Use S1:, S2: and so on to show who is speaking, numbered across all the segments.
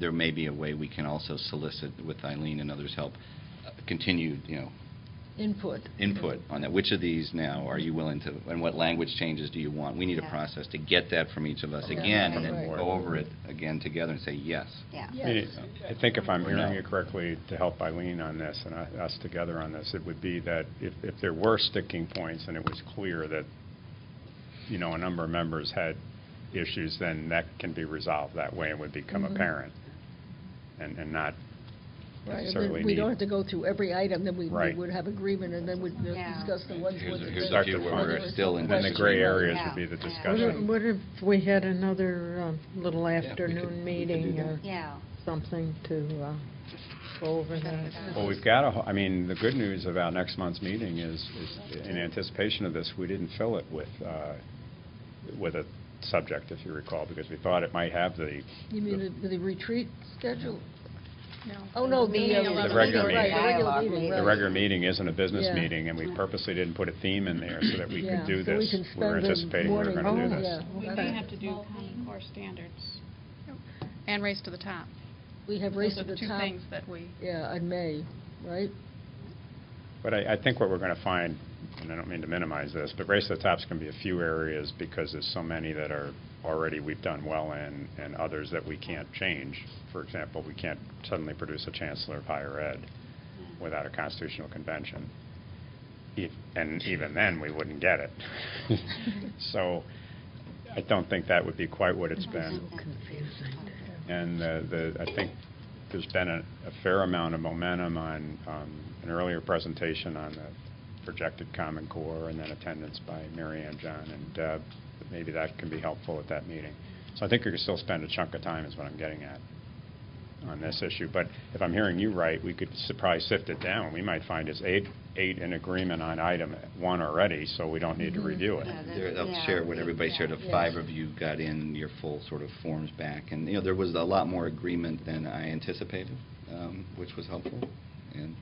S1: there may be a way we can also solicit, with Eileen and others' help, uh, continued, you know,
S2: Input.
S1: input on that. Which of these now are you willing to, and what language changes do you want? We need a
S3: Yeah.
S1: process to get that from each of us
S2: Yeah,
S1: again, and
S2: right.
S1: then go over it again together and say, yes.
S3: Yeah.
S2: Yeah.
S4: I mean,
S2: Yes.
S4: I think if I'm
S1: Or no.
S4: hearing you correctly, to help Eileen on this and I- us together on this, it would be that if, if there were sticking points and it was clear that, you know, a number of members had issues, then that can be resolved that way and would become
S2: Mhm.
S4: apparent and, and not
S2: Right, and
S4: Certainly
S2: then we don't
S4: need-
S2: have to go through every item, then we we
S4: Right.
S2: would have agreement, and then we'd uh,
S3: Yeah.
S2: discuss the ones
S1: Here's
S2: with
S1: a-
S2: the...
S1: here's
S4: a few where we're
S1: still in
S4: Then the gray
S3: area.
S4: areas would be the
S3: Yeah.
S5: What if-
S4: discussion.
S3: Gotcha.
S5: What if we had another um, little
S1: Yeah, we could- we
S5: afternoon
S1: could
S5: meeting
S1: do that.
S5: or
S3: Yeah.
S5: something to uh, go over that?
S4: Well, we've got a, ho- I mean, the good news about next month's meeting is, is in anticipation of this, we didn't fill it with, uh, with a subject, if you recall, because we thought it might have the
S2: You mean the- the retreat schedule?
S6: No.
S2: Oh, no, the... uh,
S4: The
S2: meeting, right,
S4: regular meeting.
S2: the regular
S3: Dialogue
S2: meeting,
S3: meeting.
S4: The
S2: right.
S4: regular meeting isn't a business
S2: Yeah.
S4: meeting, and we purposely didn't put a theme in there so that we
S2: Yeah,
S4: could do
S2: so we
S4: this.
S2: can
S4: We were
S2: spend the
S4: anticipating we were
S2: morning-
S4: going to do
S5: Oh,
S4: this.
S2: Yeah.
S6: We
S2: okay.
S6: may have to do Common Core standards and Race to the Top.
S2: We have raised to the
S6: Those are two
S2: top,
S6: things that we,
S2: yeah, in May, right?
S4: But I, I think what we're going to find, and I don't mean to minimize this, but Race to the Top's going to be a few areas because there's so many that are already, we've done well in, and others that we can't change. For example, we can't suddenly produce a chancellor of higher ed without a constitutional convention. E- And even then, we wouldn't get it. So I don't think that would be quite what it's been.
S5: So confusing.
S4: And uh, the, I think there's been a a fair amount of momentum on um, an earlier presentation on the projected Common Core and then attendance by Mary Ann John and Deb. But Maybe that can be helpful at that meeting. So I think we could still spend a chunk of time is what I'm getting at on this issue. But if I'm hearing you right, we could s- probably sift it down. We might find it's eight, eight in agreement on item one already, so we don't need to
S2: Mhm.
S5: Mm-hmm.
S4: review it.
S3: Yeah, that's-
S1: There- They'll
S3: yeah,
S1: share what
S3: we-
S1: everybody
S3: yeah.
S1: shared, the
S2: Yes.
S1: five of you got in your full sort of forms back, and, you know, there was a lot more agreement than I anticipated, um, which was helpful, and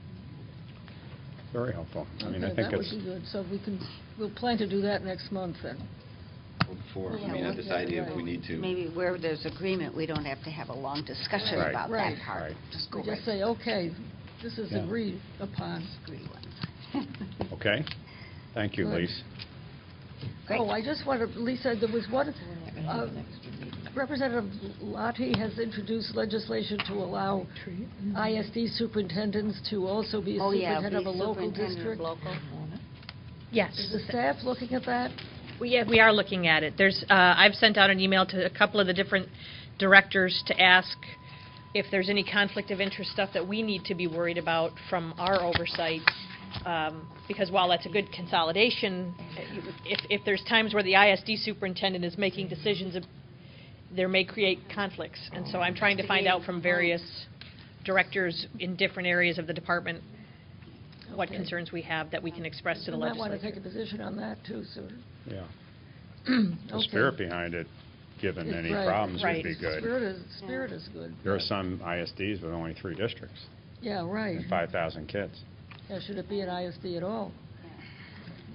S4: Very helpful. I mean, I
S2: Okay,
S4: think it's.
S2: That would be good, so we can, we'll plan to do that next month, then.
S1: or before, I
S3: Yeah,
S1: mean, I
S3: we'll
S1: this
S3: get it
S1: idea if
S3: right.
S1: we need to.
S3: Maybe where there's agreement, we don't have to have a long discussion
S4: Right.
S3: about
S2: Right.
S3: that part.
S4: Right.
S3: Just go
S2: We
S3: right
S2: just
S3: to
S2: say, okay, this is
S4: Yeah.
S2: agreed upon.
S3: the agree ones.
S4: Okay? Thank you,
S2: Good.
S4: Lise.
S3: Great.
S2: Oh, I just want to, Lisa, there was one, uh, Representative Lottie has introduced legislation to allow
S5: Retreat.
S2: ISD superintendents to also be a
S3: Oh, yeah,
S2: superintendent of
S3: be
S2: a local
S3: superintendent of
S2: district.
S3: local.
S2: Is
S7: Yes.
S2: the staff looking at that?
S7: We yeah, we are looking at it. There's, uh, I've sent out an email to a couple of the different directors to ask if there's any conflict of interest stuff that we need to be worried about from our oversight, um, because while that's a good consolidation, if if there's times where the ISD superintendent is making decisions, it- there may create conflicts. And so I'm trying to find out from various directors in different areas of the department what
S2: Okay.
S7: concerns we have that we can express to the
S2: You might want to take
S7: legislature.
S2: a position on that, too, sir.
S4: Yeah. The
S2: Okay.
S4: spirit behind it, given
S2: It's
S4: any
S2: right.
S4: problems, would
S7: Right.
S4: be good.
S2: Spirit is, spirit is good.
S4: There are some ISDs with only three districts
S2: Yeah, right.
S4: and 5,000 kids.
S2: Yeah, should it be an ISD at all?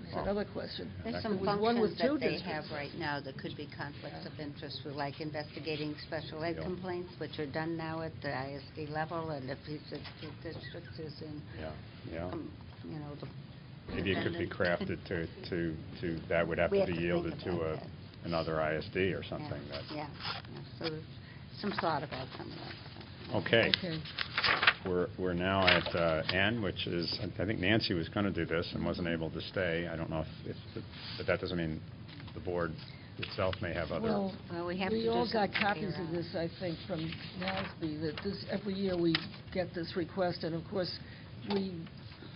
S2: That's
S4: Well,
S2: another question.
S3: There's some
S2: With one with
S3: functions
S2: two
S3: that they
S2: districts.
S3: have right now that could be conflicts of interest, with, like investigating special ed
S4: Yeah.
S3: complaints, which are done now at the ISD level, and if each of the districts is in,
S4: Yeah, yeah.
S3: um, you know, the...
S4: Maybe it could be
S3: superintendent.
S4: crafted to, to, to, that would have
S3: We
S4: to
S3: have
S4: be
S3: to think
S4: yielded to
S3: about
S4: a,
S3: that.
S4: another ISD or
S3: Yeah,
S4: something that,
S3: Yeah, yeah. so there's some thought about some of that. so.
S4: okay. We're, we're now at uh, N, which is, I think Nancy was going to do this and wasn't able to stay. I don't know if, if- but that doesn't mean the board itself may have other.
S2: Well,
S3: Well, we have to
S2: we
S3: do
S2: all
S3: something
S2: got copies of
S3: here.
S2: this, I think, from NASB, that this, every year we get this request, and of course, we,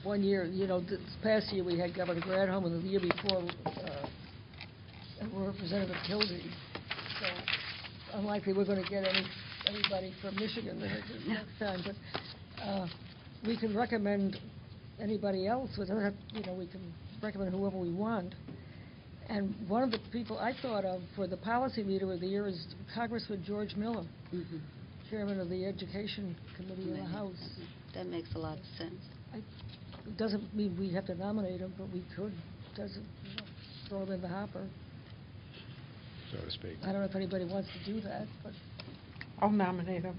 S2: one year, you know, this past year, we had Governor Granholm, and the year before, uh, Representative Kildee. So unlikely we're going to get any, anybody from Michigan the next time, but uh, we can recommend anybody else without, have- you know, we can recommend whoever we want. And one of the people I thought of for the policy leader of the year is Congressman George Miller,
S3: Mhm.
S2: chairman of the Education Committee in the
S3: Right.
S2: House.
S3: That makes a lot of sense.
S2: It Doesn't mean we have to nominate him, but we could, doesn't, you know, throw him in the hopper.
S4: So to speak.
S2: I don't know if anybody wants to do that, but
S5: I'll nominate him.